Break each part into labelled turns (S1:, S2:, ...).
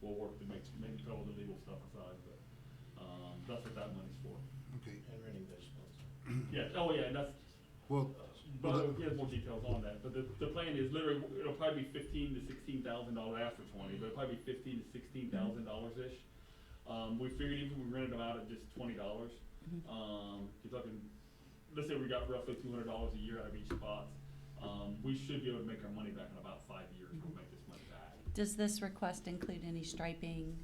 S1: we'll work to make, make, put all the legal stuff aside, but, um, that's what that money's for.
S2: Okay,
S3: And running vegetables.
S1: Yeah, oh yeah, and that's,
S2: well,
S1: but
S2: well,
S1: we have more details on that, but the, the plan is literally, it'll probably be fifteen to sixteen thousand dollars after twenty, but it'll probably be fifteen to sixteen thousand dollars-ish. Um, we figured even if we rented them out at just twenty dollars, um, you're talking, let's say we got roughly two hundred dollars a year out of each spot. Um, we should be able to make our money back in about five years, we'll make this money back.
S4: Does this request include any striping?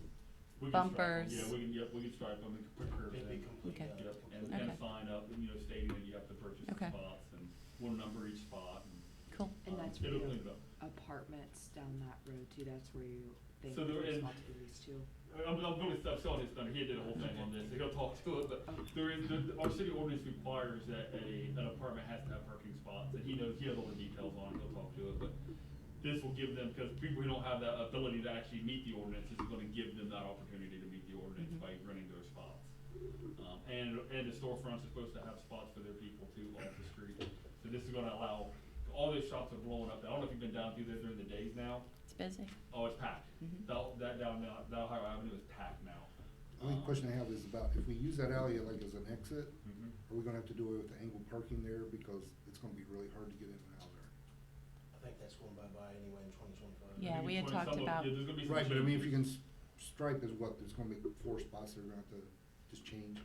S1: We can stripe 'em.
S4: Bumpers.
S1: Yeah, we can, yep, we can stripe them and put curves
S3: It'd
S1: in.
S3: be complete,
S4: Okay.
S1: Yep, and,
S3: uh, complete.
S1: and
S4: Okay.
S1: sign up, and, you know, stating that you have to purchase the
S4: Okay.
S1: spots and one number each spot and.
S4: Cool.
S5: And
S1: um,
S5: that's
S1: It'll
S5: where-
S1: clean it up.
S5: apartments down that road too, that's where you, they,
S1: So there
S5: it's
S1: is-
S5: all to be leased to.
S1: I'm, I'm gonna stop selling his thunder, he did a whole thing on this, he'll talk to it, but there is, the, our city ordinance requires that a, an apartment has to have parking spots, and he knows, he has all the details on it, he'll talk to it, but this will give them, because people who don't have that ability to actually meet the ordinance, this is gonna give them that opportunity to meet the ordinance by running their spots. Um, and, and the storefronts are supposed to have spots for their people too off the street, so this is gonna allow, all those shops are blowing up, I don't know if you've been down through there during the days now,
S4: It's busy.
S1: Oh, it's packed.
S4: Mm-hmm.
S1: That, that down, now- that Ohio Avenue is packed now. Um,
S2: the only question I have is about if we use that alley like as an exit,
S1: Mhm.
S2: are we gonna have to do it with the angled parking there because it's gonna be really hard to get in and out there?
S3: I think that's going bye-bye anyway in twenty
S1: I
S3: twenty-five.
S4: Yeah,
S1: think
S4: we
S1: it's one
S4: had
S1: of
S4: talked
S1: some of-
S4: about-
S1: yeah, there's gonna be some
S2: Right, but I mean, if
S1: changes.
S2: you can s- stripe is what, there's gonna be four spots that are gonna have to just change.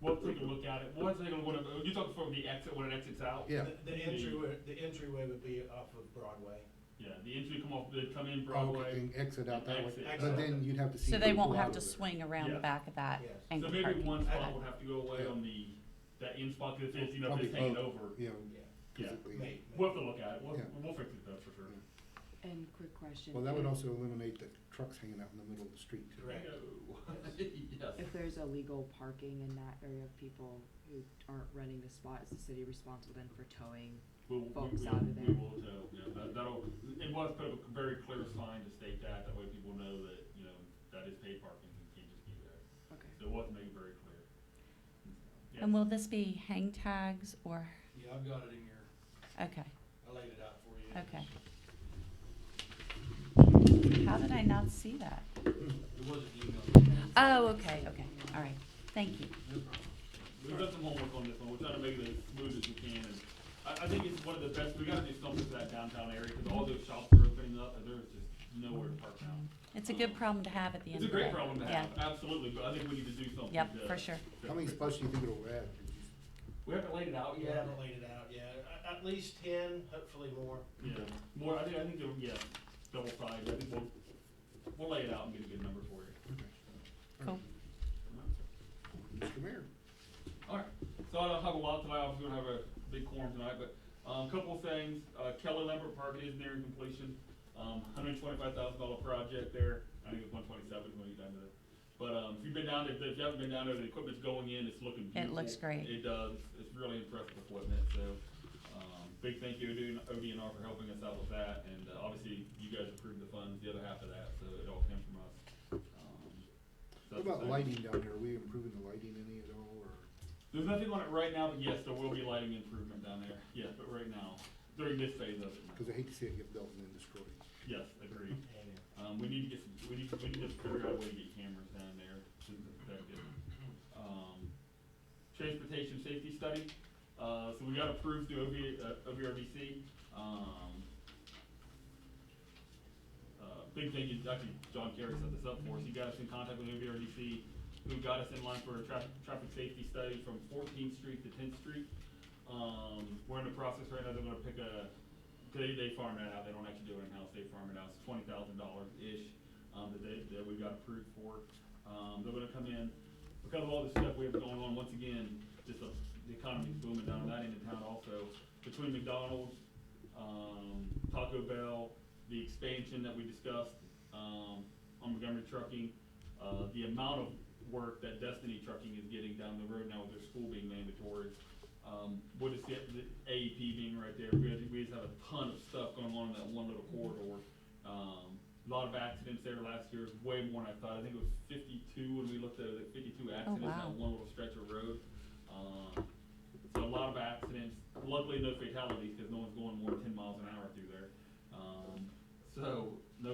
S1: We'll take a look at it. We'll take a look at, you talking from the exit, when it exits out?
S2: Yeah.
S3: The- The entryway, the entryway would be off of Broadway.
S1: Yeah, the entry come off, they come in
S2: Oh, Okay,
S1: Broadway.
S2: And exit out that way,
S1: Exit.
S2: but then you'd have to see.
S4: So they
S2: people
S4: won't
S2: out
S4: have to
S2: of there.
S4: swing around the
S1: Yes.
S4: back of that
S3: Yes.
S1: So
S4: angled
S1: maybe
S4: parking?
S1: one spot
S4: Okay.
S1: will have to go away
S2: Yeah.
S1: on the, that in spot, cause it's, you know, if it's
S2: Probably
S1: hanging
S2: both.
S1: over.
S2: Yeah.
S3: Yeah.
S2: 'cause
S1: Yeah.
S2: it-
S3: May- may-
S1: We'll have to look at it. We'll,
S2: Yeah.
S1: we'll fix it though, for sure.
S5: And quick question.
S2: Well, that would
S5: if-
S2: also eliminate the trucks hanging out in the middle of the street too.
S3: Correct.
S1: Yes.
S5: If there's illegal parking in that area of people who aren't running the spot, is the city responsible then for towing?
S1: We will, we
S5: folks
S1: will,
S5: out of
S1: we
S5: there.
S1: will tell, yeah, that, that'll, it was put up a very clear sign to state that, that way people know that, you know, that is paid parking, you can't just be there.
S5: Okay.
S1: So it was made very clear. Yeah.
S4: And will this be hang tags or,
S6: Yeah, I've got it in here.
S4: okay,
S6: I laid it out for you.
S4: okay. How did I not see that?
S6: It was an email.
S4: Oh, okay, okay, all right, thank you.
S1: We've done some homework on this one, we're trying to make it as smooth as we can, and I, I think it's one of the best, we gotta do something for that downtown area, cause all those shops are opening up, and there's just nowhere to park now.
S4: It's a good problem to have at the end
S1: It's a
S4: of the day.
S1: great problem to have,
S4: Yeah,
S1: absolutely, but I think we need to do something
S4: Yep,
S1: to-
S4: for sure.
S1: to
S2: How many
S1: fix it.
S2: spots do you think it'll add?
S1: We haven't laid it out
S3: We
S1: yet.
S3: haven't laid it out yet. A- At least ten, hopefully more.
S1: Yeah, more, I think, I think, they're- yeah, double sides, I think we'll, we'll lay it out and get a good number for you.
S4: Cool.
S2: Mr. Mayor?
S1: Alright, so I don't have a lot tonight, obviously we're gonna have a big quorum tonight, but, um, a couple of things, uh, Keller Lambert Park is nearing completion. Um, hundred twenty-five thousand dollar project there, I think it's one twenty-seven when you done with it. But, um, if you've been down there, if you haven't been down there, the equipment's going in, it's looking beautiful.
S4: It looks great.
S1: It does, it's really impressive equipment, so, um, big thank you to ODNR for helping us out with that, and uh, obviously, you guys approved the funds, the other half of that, so it all came from us. Um, so
S2: What
S1: that's
S2: about
S1: exciting.
S2: lighting down here? Are we improving the lighting any at all, or?
S1: There's nothing on it right now, but yes, there will be lighting improvement down there, yes, but right now, during this phase of it,
S2: Because I hate to see it get built and then destroyed.
S1: yes, agreed.
S3: And
S1: Um, we need to get some, we need, we need to figure out a way to get cameras down there to protect it. Um, transportation safety study, uh, so we got approved through OV, uh, OVRDC, um. Uh, big thing is, actually, John Kerry set this up for us, he got us in contact with OVRDC, who got us in line for a traffic, traffic safety study from Fourteenth Street to Tenth Street. Um, we're in the process right now, they're gonna pick a, they, they farm that out, they don't actually do it in-house, they farm it out, it's twenty thousand dollars-ish, um, that they, that we got approved for. Um, they're gonna come in, because of all the stuff we have going on, once again, just the, the economy's booming down that end of town also. Between McDonald's, um, Taco Bell, the expansion that we discussed, um, on Montgomery Trucking, uh, the amount of work that Destiny Trucking is getting down the road now with their school being mandatory. Um, what is the, the AEP being right there, we, had- we just have a ton of stuff going on in that one little corridor. Um, a lot of accidents there last year, way more than I thought, I think it was fifty-two when we looked at it, like fifty-two accidents
S4: wow.
S1: on one little stretch of road. Um, so a lot of accidents, luckily no fatalities, cause no one's going more than ten miles an hour through there. Um, so,